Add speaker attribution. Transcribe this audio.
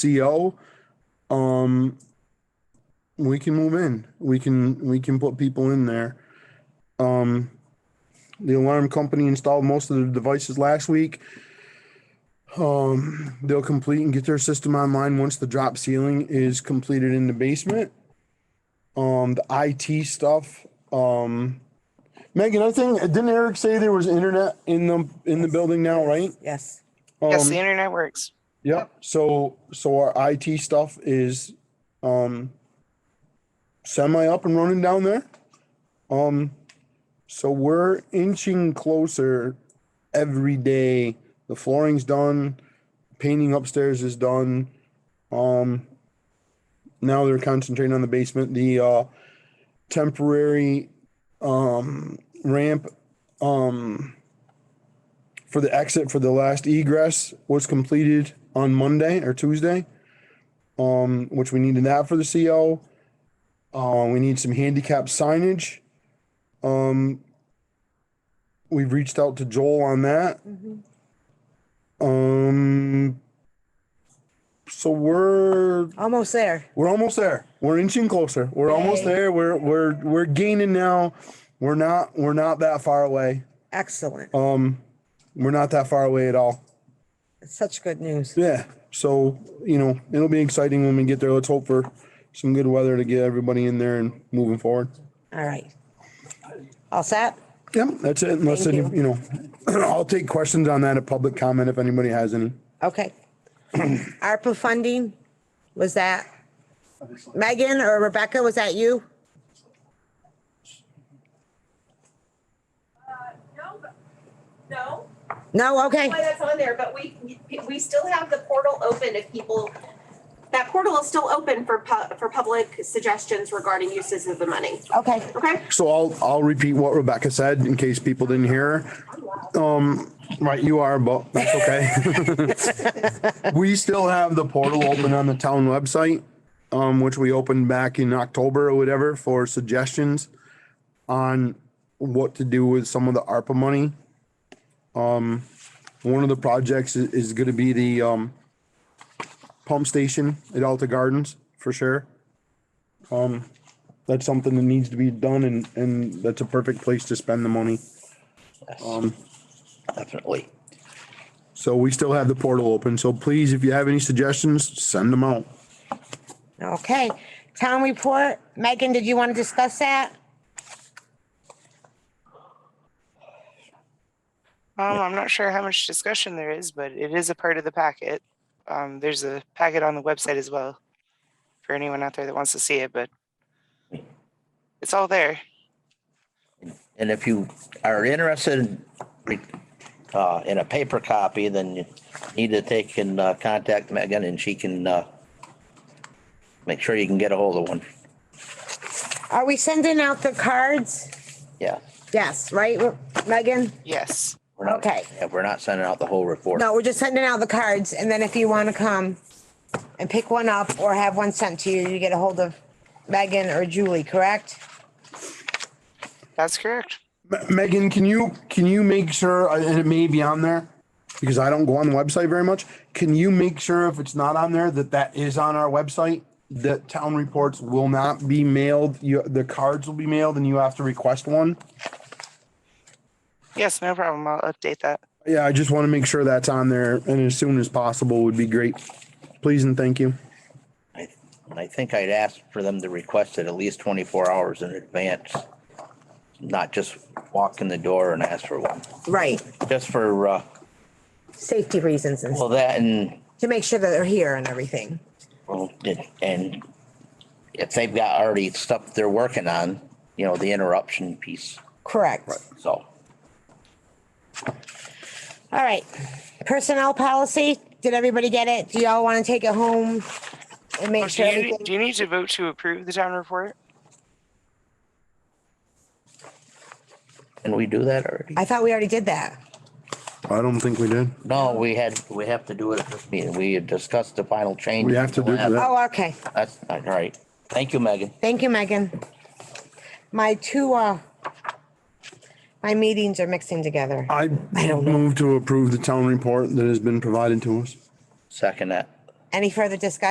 Speaker 1: CO, E um, we can move in. We can, we can put people in there. Um, the alarm company installed most of the devices last week. Um, they'll complete and get their system online once the drop ceiling is completed in the basement. Um, the IT stuff, um, Megan, I think, didn't Eric say there was internet in the, in the building now, right?
Speaker 2: Yes,
Speaker 3: Yes,
Speaker 1: Um,
Speaker 3: the internet works.
Speaker 1: Yep, so, so our IT stuff is, um, semi up and running down there. Um, so we're inching closer every day. The flooring's done, painting upstairs is done. Um, now they're concentrating on the basement, the, uh, temporary, um, ramp, um, for the exit for the last egress was completed on Monday or Tuesday. Um, which we needed that for the CO. Uh, we need some handicap signage. Um, we've reached out to Joel on that. Um, so we're
Speaker 2: almost there.
Speaker 1: we're almost there. We're inching closer. We're almost
Speaker 2: Yay.
Speaker 1: there. We're we're we're gaining now. We're not we're not that far away.
Speaker 2: Excellent.
Speaker 1: Um, we're not that far away at all.
Speaker 2: Such good news.
Speaker 1: Yeah. So, you know, it'll be exciting when we get there. Let's hope for some good weather to get everybody in there and moving forward.
Speaker 2: All right. All set?
Speaker 1: Yep, that's it. Unless,
Speaker 2: Thank
Speaker 1: any,
Speaker 2: you.
Speaker 1: you know, I'll take questions on that at public comment if anybody has any.
Speaker 2: Okay. ARPA funding, was that Megan or Rebecca? Was that you?
Speaker 4: No, but- no,
Speaker 2: No, okay.
Speaker 4: why that's on there, but we, we still have the portal open if people, that portal is still open for pu- for public suggestions regarding uses of the money,
Speaker 2: Okay.
Speaker 4: okay?
Speaker 1: So I'll, I'll repeat what Rebecca said in case people didn't hear. her. Um, right, you are, but that's okay. We still have the portal open on the town website, um, which we opened back in October or whatever for suggestions on what to do with some of the ARPA money. Um, one of the projects is, is gonna be the, um, pump station at Alta Gardens for sure that's something that needs to be done and, and that's a perfect place to spend the money. Um,
Speaker 5: Definitely.
Speaker 1: So we still have the portal open. So please, if you have any suggestions, send them out.
Speaker 2: Okay. Town report, Megan, did you want to discuss that?
Speaker 3: Um, I'm not sure how much discussion there is, but it is a part of the packet. Um, there's a packet on the website as well for anyone out there that wants to see it, but it's all there.
Speaker 5: And if you are interested in, re- uh, in a paper copy, then you need to take and, uh, contact Megan and she can, uh, make sure you can get a hold of one.
Speaker 2: Are we sending out the cards?
Speaker 5: Yeah.
Speaker 2: Yes, right, Megan?
Speaker 3: Yes.
Speaker 5: we're not-
Speaker 2: Okay.
Speaker 5: yeah, We're not sending out the whole report.
Speaker 2: No, we're just sending out the cards and then if you want to come and pick one up or have one sent to you, you get a hold of Megan or Julie, correct?
Speaker 3: That's correct.
Speaker 1: Me- Megan, can you, can you make sure, uh, and it may be on there, because I don't go on the website very much. Can you make sure if it's not on there, that that is on our website? That town reports will not be mailed, you, the cards will be mailed and you have to request one?
Speaker 3: Yes, no problem. I'll update that.
Speaker 1: Yeah, I just want to make sure that's on there and as soon as possible would be great. Please and thank you.
Speaker 5: I I think I'd ask for them to request it at least twenty-four hours in advance. Not just walk in the door and ask for one,
Speaker 2: Right.
Speaker 5: just for, uh,
Speaker 2: Safety reasons and
Speaker 5: well, that and
Speaker 2: to make sure that they're here and everything.
Speaker 5: Well, it- and if they've got already stuff they're working on, you know, the interruption piece,
Speaker 2: Correct.
Speaker 5: so.
Speaker 2: All right. Personnel policy, did everybody get it? Do y'all want to take it home and
Speaker 3: Oh,
Speaker 2: make
Speaker 3: Do
Speaker 2: sure?
Speaker 3: you,
Speaker 2: everything-
Speaker 3: do you need to vote to approve the town report?
Speaker 5: Can we do that already?
Speaker 2: I thought we already did that.
Speaker 1: I don't think we did.
Speaker 5: No, we had, we have to do it at this meeting. We had discussed the final change.
Speaker 1: We have to do that.
Speaker 2: Oh, okay.
Speaker 5: That's, all right. Thank you, Megan.
Speaker 2: Thank you, Megan. My two, uh, my meetings are mixing together.
Speaker 1: I
Speaker 2: I don't know.
Speaker 1: move to approve the town report that has been provided to us.
Speaker 5: Second that.
Speaker 2: Any further discussion?